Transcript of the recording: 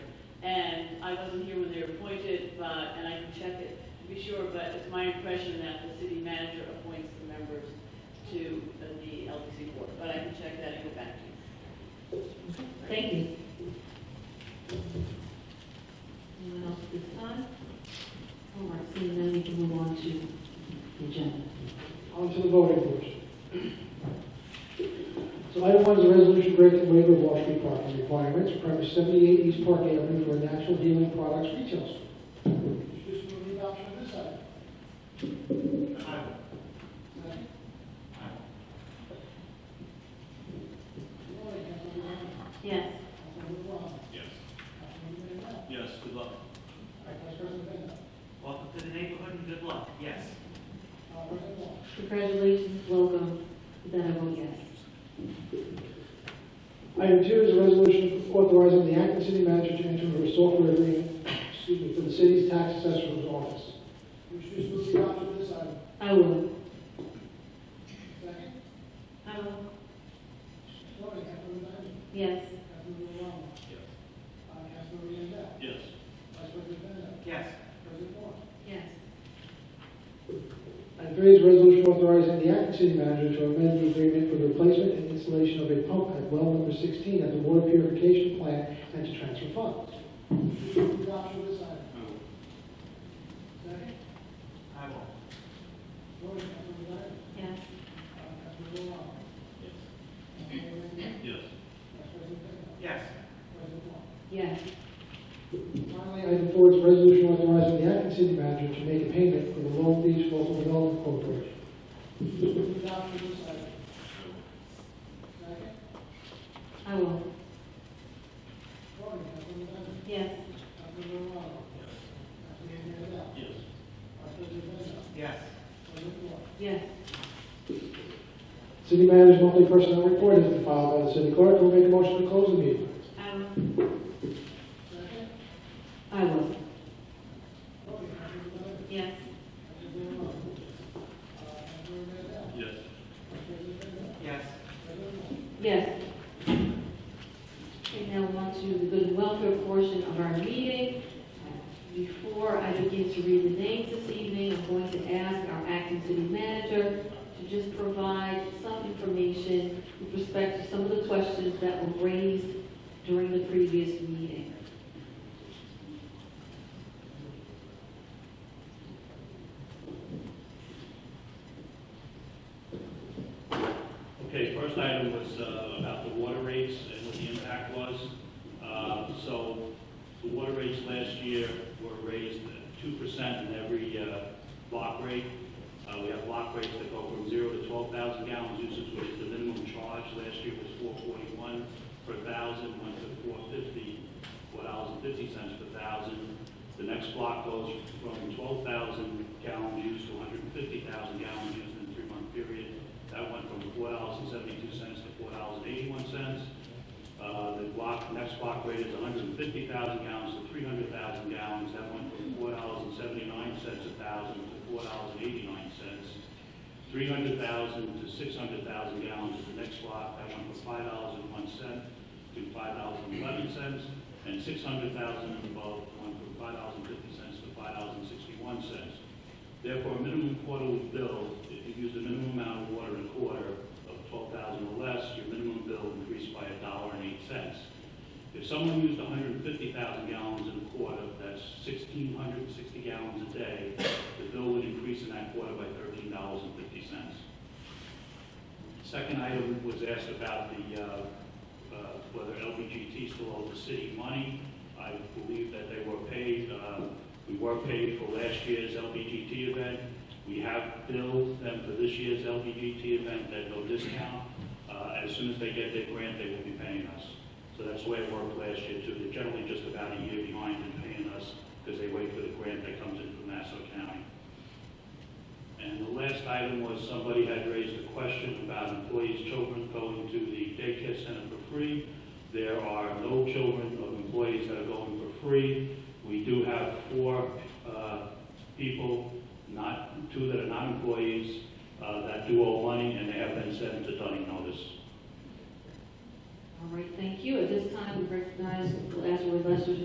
I wasn't here when they were appointed, but, and I can check it to be sure, but it's my impression that the city manager appoints the members to the LDC board, but I can check that and go back to you. Thank you. Anyone else at this time? All right, seeing none, we can move on to the agenda. On to the voting first. So item one is a resolution granting waiver of Wall Street parking requirements, premise 78 East Park Avenue for a natural healing products retail store. Just move the adoption of this item. Second. Good morning, Councilmember Brown. Yes. Councilmember Brown. Yes. Councilmember Mandel. Yes, good All luck. right, Vice President Mandel. Welcome to the neighborhood and good luck, yes. Uh, President Wong. Congratulations, welcome. Then I vote yes. Item two is a resolution authorizing the acting city manager to enter into a software agreement, excuse me, for the city's tax assessor's office. Would you just move the adoption of this item? I will. Second. I will. Good morning, Councilmember Diamond. Yes. Councilmember Brown. Yes. Uh, Councilmember Mandel. Yes. Vice President Mandel. Yes. President Wong. Yes. Item three is a resolution authorizing the acting city manager to amend the agreement for the replacement and installation of a pump at well number 16 at the water purification plant and to transfer funds. Would you move the adoption of this item? Second. I will. I will. Good morning, Councilmember Diamond. Yes. Uh, Councilmember Brown. Yes. Councilmember Mandel. Vice President Yes. Mandel. President Yes. Wong. Yes. Finally, item four is a resolution authorizing the acting city manager to make a payment for the Long Beach Local Development Corporation. Move the adoption of this item. Second. I will. Voting, Councilmember Dunn. Yes. Councilmember Romano. Councilmember Mandel. Yes. Vice President Mandel. Yes. President Moore. Yes. City manager's monthly personnel report has been filed by the city clerk. Who make a motion to close the meeting? I will. Second. I will. Voting, Councilmember Dunn. Yes. Councilmember Romano. Uh, Councilmember Mandel. Yes. Vice President Mandel. Yes. President Moore. Yes. Okay, now on to the good and welfare portion of our meeting. Before I begin to read the names this evening, I'm going to ask our acting city manager to just provide some information with respect to some of the questions that were raised during the previous meeting. Okay, first item was uh, about the water rates and what the impact was. Uh, So the water rates last year were raised two percent in every uh, block rate. Uh, We have block rates that go from zero to twelve thousand gallons usage, which is the minimum charge. Last year was four forty-one per thousand, went to four fifty, four dollars and fifty cents per thousand. The next block goes from twelve thousand gallons used to one hundred and fifty thousand gallons used in a three-month period. That went from four dollars and seventy-two cents to four dollars and eighty-one cents. Uh, The block, next block rate is 150,000 gallons to 300,000 gallons. That went from $4.79 a thousand to $4.89. 300,000 to 600,000 gallons is the next block. That went from $5.01 to $5.11. And 600,000 and above went from $5.50 to $5.61. Therefore, a minimum quarterly bill, if you use the minimum amount of water in a quarter of twelve thousand or less, your minimum bill increased by a dollar and eight cents. If someone used hundred and fifty thousand gallons in a quarter, that's sixteen hundred and sixty gallons a day, the bill would increase in that quarter by thirteen dollars and fifty cents. Second item was asked about the, uh, uh, whether LBGT still owes the city money. I believe that they were paid, uh, we were paid for last year's LBGT event. We have billed them for this year's LBGT event at no discount. Uh, As soon as they get their grant, they will be paying us. So that's the way it worked last year too. They're generally just about a year behind in paying us because they wait for the grant that comes in from Nassau County. And the last item was somebody had raised a question about employees' children going to the daycare center for free. There are no children of employees that are going for free. We do have four uh, people, not, two that are not employees, uh, that do owe money, and they have been sent to Dunning notice. All right, thank you. At this time, we recognize Lazarus Lester's